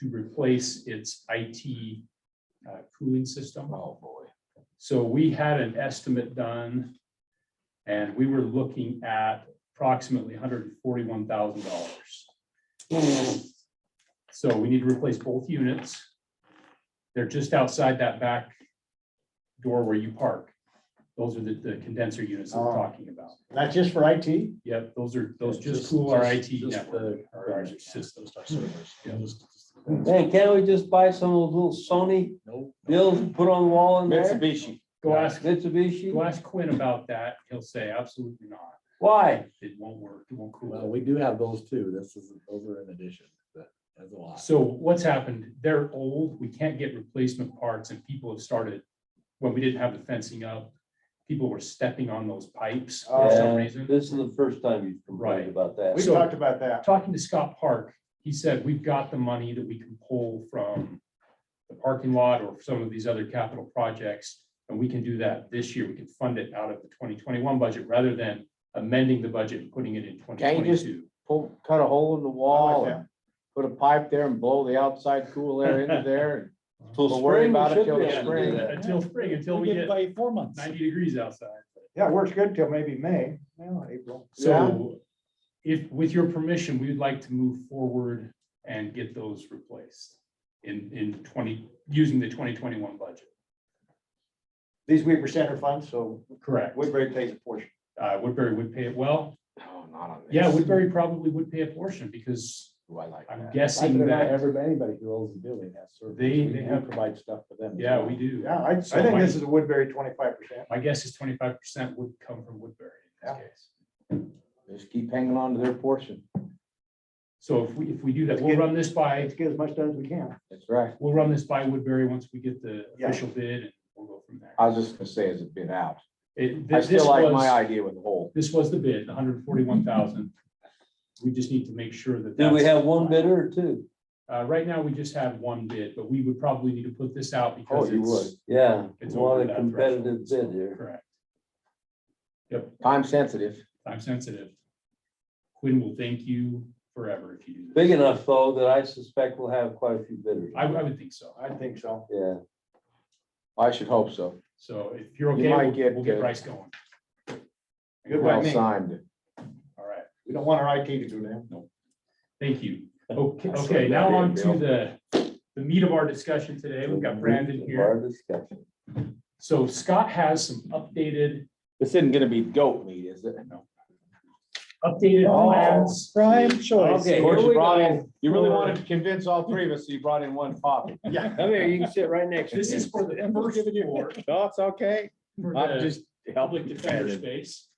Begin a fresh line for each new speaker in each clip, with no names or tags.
to replace its IT uh, cooling system. Oh, boy. So we had an estimate done and we were looking at approximately hundred and forty-one thousand dollars. So we need to replace both units. They're just outside that back door where you park. Those are the the condenser units that we're
Oh.
talking about.
Not just for IT?
Yep, those are, those just
Just-
cool our IT
just- just
network,
the-
our our systems.
our servers.
Yeah.
Just- Hmm.
Man, can't we just buy some of those little Sony
Nope.
bills and put on the wall in there?
Mitsubishi.
Go ask, go
Mitsubishi?
ask Quinn about that. He'll say absolutely not.
Why?
It won't work. It won't cool.
Well, we do have those too. This is, those are in addition, but that's a lot.
So what's happened, they're old, we can't get replacement parts and people have started, when we didn't have the fencing up, people were stepping on those pipes for
Yeah,
some reason.
Uh, This is the first time you've
Right.
complained about
We
that.
So-
talked about that.
Talking to Scott Park, he said, we've got the money that we can pull from the parking lot or some of these other capital projects. And we can do that this year. We can fund it out of the twenty twenty-one budget rather than amending the budget and putting it in twenty
Can't you just-
twenty-two.
pull, cut a hole in the
Oh,
I
wall
like
and put a pipe there and blow the outside cool air into there.
Till
Don't worry
spring, we
about it
should
till
be
the
able to do
spring.
that.
Until spring, until we get
by four months.
ninety degrees outside.
Yeah, it works good till maybe May, now April.
So if, with your permission, we would like to move forward and get those replaced in, in twenty, using the twenty twenty-one budget.
These Weaver Center funds, so
Correct.
Woodbury pays a portion.
Uh, Woodbury would pay it well.
No, not on this.
Yeah, Woodbury probably would pay a portion because
Do I like
I'm
that?
guessing that,
Everybody, anybody who owns the building has service.
They-
We
they
do
have-
Provide stuff for them. as
yeah,
well.
we do.
Yeah, I, I
So
think
my-
this is a Woodbury twenty-five percent.
My guess is twenty-five percent would come from Woodbury in this
Yeah.
case.
Just keep hanging on to their portion.
So if we, if we do that, we'll run this by,
Let's get as much done as we can.
That's right.
we'll run this by Woodbury once we get the
Yeah.
official bid and we'll go from there.
I was just gonna say, is it been out?
It-
I
this
still like my
was-
idea with the hole.
This was the bid, hundred and forty-one thousand. We just need to make sure that.
Do we
that's-
have one bidder or two?
Uh, right now, we just have one bid, but we would probably need to put this out because
Oh, you
it's.
Yeah,
It's
a lot
over
of
that
competitive bid here.
Correct,
Time sensitive.
time sensitive. Quinn will thank you forever if you do this.
Big enough though that I suspect we'll have quite a few bidders.
I, I would think so.
I think so.
Yeah,
I should hope so.
So if you're
You
okay,
might
we'll,
get
we'll get
the-
Bryce going.
Good by
Well
me.
signed.
All right,
We don't want our IT to do that.
thank you. Okay,
That's
okay,
what
now
that
on
is,
to
Bill.
the, the meat of our discussion today. We've got Brandon here.
Our discussion.
So Scott has some updated,
This isn't gonna be goat meat, is it?
updated
Oh,
plans.
Prime
Okay,
Of
here
course,
we
you brought
go.
in, you really wanted to convince all three of us, so you brought in one copy.
Yeah.
Come here, you can sit right next
This is for the first floor.
No, it's okay.
for the-
I'm just
public
helping
defender
defend it.
space.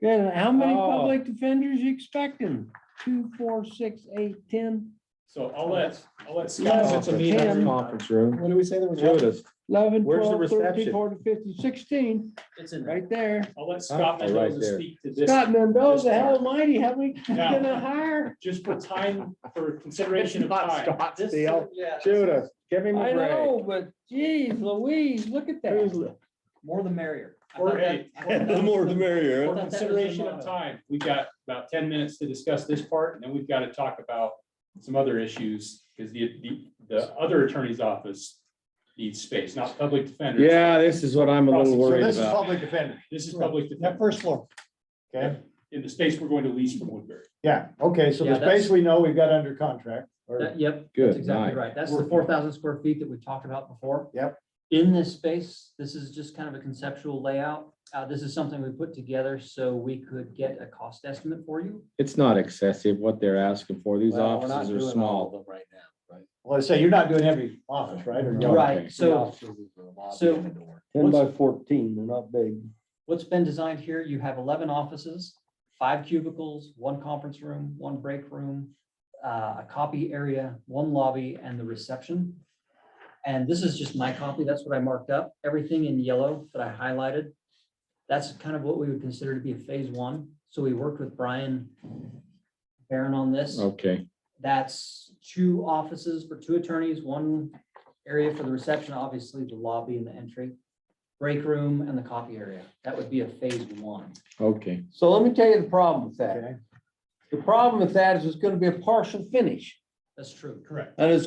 Yeah, how many
Oh.
public defenders you expecting? Two, four, six, eight, ten,
So I'll let, I'll let
Yes,
Scott,
it's a meeting.
uh,
Conference room.
What do we say there was?
Show us.
eleven,
Where's the
twelve, thirteen,
reception?
fourteen, fifteen, sixteen,
It's in
right there.
I'll let Scott
Oh, right
Mendoza
there.
speak to this,
Scott Mendoza,
this
hell almighty, how many you
Now-
gonna hire?
just for time, for consideration of
Not
time.
Scott Steele. Shoot us. Give him
I
a break.
know, but geez Louise, look at
Who's
that.
li-
More the merrier. I
Or
thought that- I thought
The
that
more
was
the
For
merrier.
I thought that was the
consideration of
motto.
time, we got about ten minutes to discuss this part, and then we've got to talk about some other issues, because the, the, the other attorney's office needs space, not public defender.
Yeah, this is what I'm a little
So
worried
this is
about.
public defender.
This is public
That
defender,
first floor.
Okay,
in the space we're going to lease from Woodbury.
yeah, okay, so the
Yeah, that's-
space we know we've got under contract. or-
That- Yep, that's
Good
exactly
night.
right. That's the four thousand square feet that we talked about before.
Yep.
In this space, this is just kind of a conceptual layout. Uh, this is something we put together so we could get a cost estimate for you.
It's not excessive what they're asking for. These
Well, we're not
offices
doing
are
all
small.
of them Right now, right?
Well, I say, you're not doing every office, right? Or
No.
no?
Right,
The
so
offices is the lobby
so-
and the door.
Ten by fourteen, they're not big.
what's been designed here, you have eleven offices, five cubicles, one conference room, one break room, uh, a copy area, one lobby, and the reception. And this is just my copy. That's what I marked up. Everything in yellow that I highlighted. That's kind of what we would consider to be a phase one. So we worked with Brian Barron on
Oh,
this.
Okay,
That's two offices for two attorneys, one area for the reception, obviously the lobby and the entry, break room and the copy area. That would be a phase one.
okay.
So let me tell you the problem with that.
Okay.
The problem with that is it's gonna be a partial finish
That's true.
Correct.
and it's